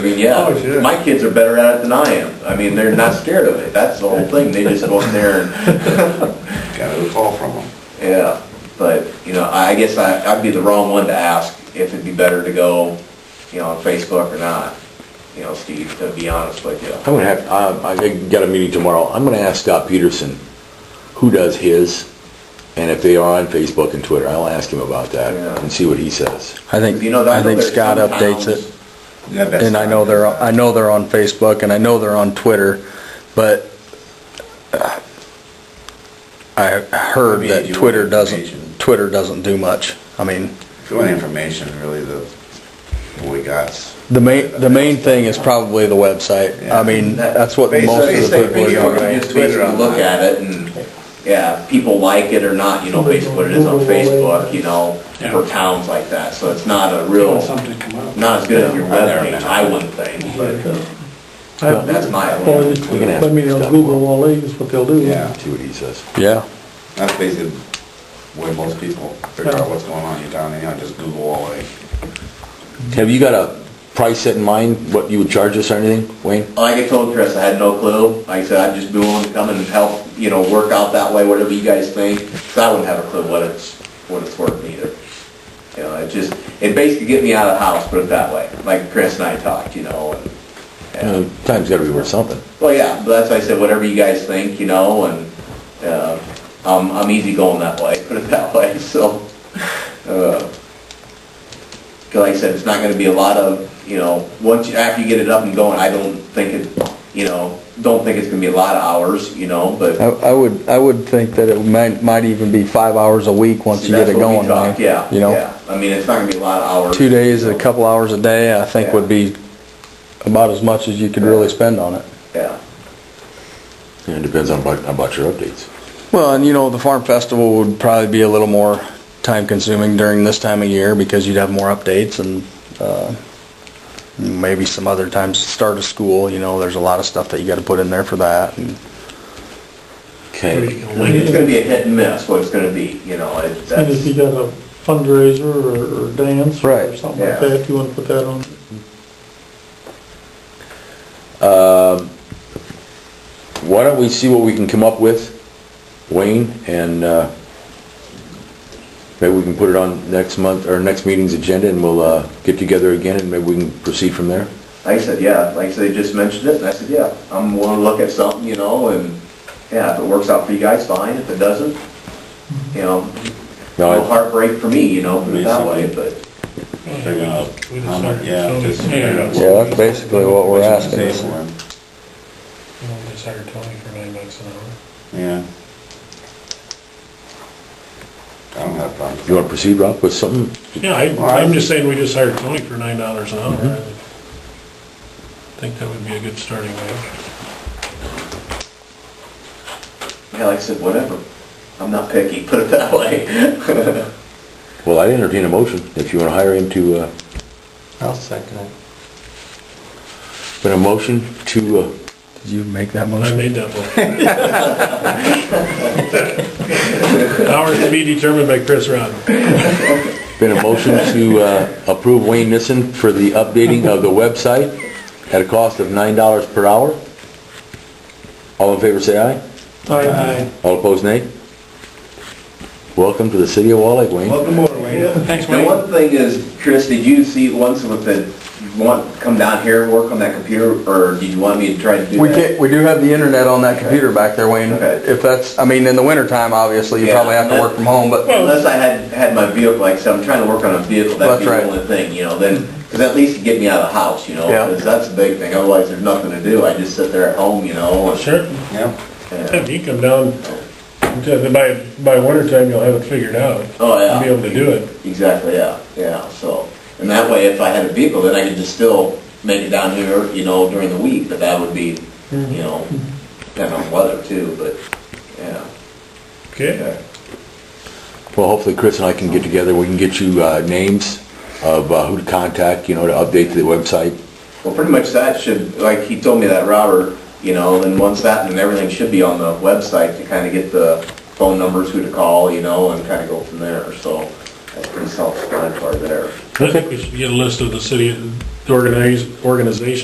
yeah, Oh, yeah. my kids are better at it than I am. I mean, they're not scared of it. That's the whole thing. They just go in there and, Got a call from them. yeah. But, you know, I I guess I, I'd be the wrong one to ask if it'd be better to go, you know, on Facebook or not. You know, Steve, to be honest with you. I'm gonna have, um, I think got a meeting tomorrow, I'm gonna ask Scott Peterson who does his, and if they are on Facebook and Twitter, I'll ask him about that Yeah. and see what he says. I think, You know, I think there's Scott some updates towns- it, and I know they're, I know they're on Facebook, and I know they're on Twitter, but uh, I heard Maybe that you Twitter want doesn't, information. Twitter doesn't do much. I mean, The only information really the, what we got. the main, the main thing is probably the website. I mean, that's what Yeah. most of the Basically, people video are on doing. Just basically look at it and, yeah, people like it or not, you know, basically what it is on Facebook, you know, for towns like that. So it's not a real, Something come up. not as good as your webpage, I wouldn't think, uh, but that's my Or opinion. We can they- ask I mean, they'll Scott. Google all these, is what they'll do. Yeah, See what he says. Yeah, that's basically where most people figure out what's going on in your town, anyhow, just Google all of Have you got a price set in mind, what you would charge us or anything, Wayne? Like I told Chris, I had no clue. Like I said, I'd just be willing to come and help, you know, work out that way, whatever you guys think. 'cause I wouldn't have a clue what it's, what it's worth either. You know, it just, it basically get me out of the house, put it that way. Like Chris and I talked, you know, and, and Uh, Time's gotta be worth something. Well, yeah, but that's why I said, whatever you guys think, you know, and, uh, I'm, I'm easy going that way, put it that way, so, uh, 'cause like I said, it's not gonna be a lot of, you know, once, you- after you get it up and going, I don't think it, you know, don't think it's gonna be a lot of hours, you know, but. I, I would, I would think that it might, might even be five hours a week once see, you get that's it what we going, talked, right? Yeah, You know? yeah, I mean, it's not gonna be a lot of hours. two days, a couple hours a day, I think would be about as much as you could really spend on it. Yeah, Yeah, It depends on about, about your updates. Well, and you know, the farm festival would probably be a little more time consuming during this time of year because you'd have more updates and, uh, maybe some other times, start of school, you know, there's a lot of stuff that you gotta put in there for that and Okay, it's gonna be a hit and miss, what it's gonna be, you know, it, And if you that's, got a fundraiser or, or dance or Right. something like Yeah. that, if you wanna put that on. why don't we see what we can come up with, Wayne, and, uh, maybe we can put it on next month, or next meeting's agenda, and we'll, uh, get together again, and maybe we can proceed from there. like I said, yeah, like I said, they just mentioned it, and I said, yeah, I'm willing to look at something, you know, and, yeah, if it works out for you guys, fine, if it doesn't, you know, No, no I- heartbreak for me, you know, put it that way, but, it. How much- Yeah, just. Yeah, that's basically what we're asking. Disabling, Just hire Tony for nine bucks an hour. Yeah. I don't have a problem. you wanna proceed, Rob, with something? Yeah, I, I'm just saying we just hired Tony for nine dollars an hour. I Mm-hmm. Think that would be a good starting wage. yeah, like I said, whatever. I'm not picky, put it that way. Well, I entertain a motion, if you wanna hire him to, uh, I'll second it. put a motion to, uh, Did you make that I motion? made that one. Hours to be determined by Chris Rodman. Been a motion to uh, approve Wayne Nissen for the updating of the website at a cost of $9 per hour. All in favor, say aye. Aye. All opposed, nay. Welcome to the city of Wallake, Wayne. Welcome over, Wayne. Thanks, The one thing is, Chris, did you see once with the, you want, come down here and work on that computer, or did you want me to try to do that? We get, we do have the internet on that computer back there, Wayne. Okay. If that's, I mean, in the wintertime, obviously, you Yeah. probably have to work from home, but Unless I had, had my vehicle, like I said, I'm trying to work on a vehicle, that'd be That's the right. only thing, you know, then, because at least it'd get me out of the house, you know? Yeah. 'cause that's a big thing, otherwise there's nothing to do, I just sit there at home, you know? and- Sure, Yep. yeah. if you come down, by, by winter time, you'll have it figured out. Oh, You'll Be able yeah, to do it. exactly, yeah, yeah, so, and that way, if I had a vehicle, then I could just still make it down here, you know, during the week, but that would be, Mm-hmm. you know, depending on weather too, but, yeah. Okay, Well, hopefully Chris and I can get together, we can get you uh, names of uh, who to contact, you know, to update the website. Well, pretty much that should, like he told me that, Robert, you know, and once that, and everything should be on the website to kind of get the phone numbers, who to call, you know, and kind of go from there, so that's pretty self-explanatory there. I think we should get a list of the city, the organized, organizations